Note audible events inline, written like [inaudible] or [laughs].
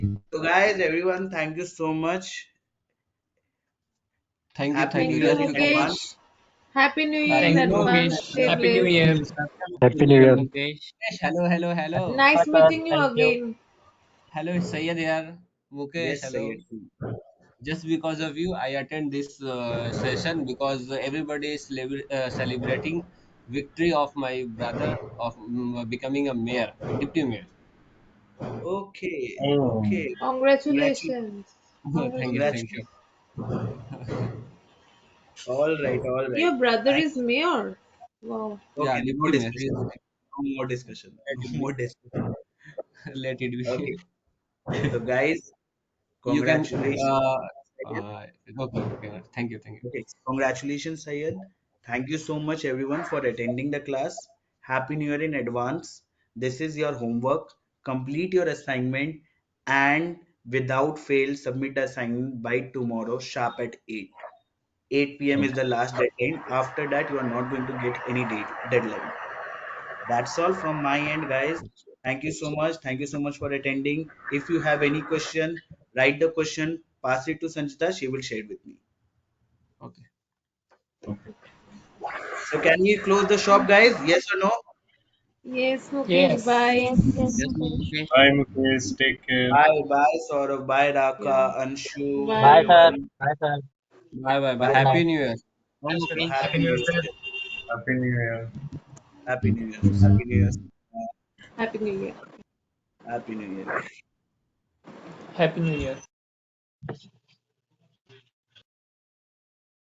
So, guys, everyone, thank you so much. Thank you, Happy thank New you, Year thank in you so advance. much. Happy New Year Thank in you, advance. Mukesh. Stay Happy blessed. New Year. Happy New Year. Mukesh. Mukesh, hello, hello, hello. Nice Bye-bye. meeting you Thank you. again. Hello, Sayed yaar. Mukesh, Yes, hello. Sayed. Just because of you, I attend this uh, session because everybody is celebra- uh, celebrating victory of my brother of mm, becoming a mayor, deputy mayor. Okay, Oh. okay. Congratulations. Oh, thank you, thank you. All right, all right. Your brother is mayor. Wow. Okay, Yeah, no more Nitin, discussion. No more discussion. No [laughs] more discussion. Let it be. Okay. So, guys, You can, congratulations. uh, uh, okay, okay. Thank you, thank you. Okay. Congratulations, Sayed. Thank you so much, everyone, for attending the class. Happy New Year in advance. This is your homework. Complete your assignment and without fail, submit the assignment by tomorrow, sharp at 8. 8 p.m. is the last deadline. After that, you are not going to get any date, deadline. That's all from my end, guys. Thank you so much. Thank you so much for attending. If you have any question, write the question, pass it to Sanjita. She will share it with me. Okay. So can we close the shop, guys? Yes or no? Yes, Mukesh. Yes. Bye. Yes, Mukesh. Bye, Mukesh. Take care. Bye, bye, Saurav. Bye, Raka, Anshu. Bye. Bye, sir. Bye, sir. Bye, bye, bye. Bye. Happy New Year. Bye, Mukesh. Happy New Year. Happy New Year. Happy New Year. Happy New Year. Happy New Year. Happy New Year. Happy New Year.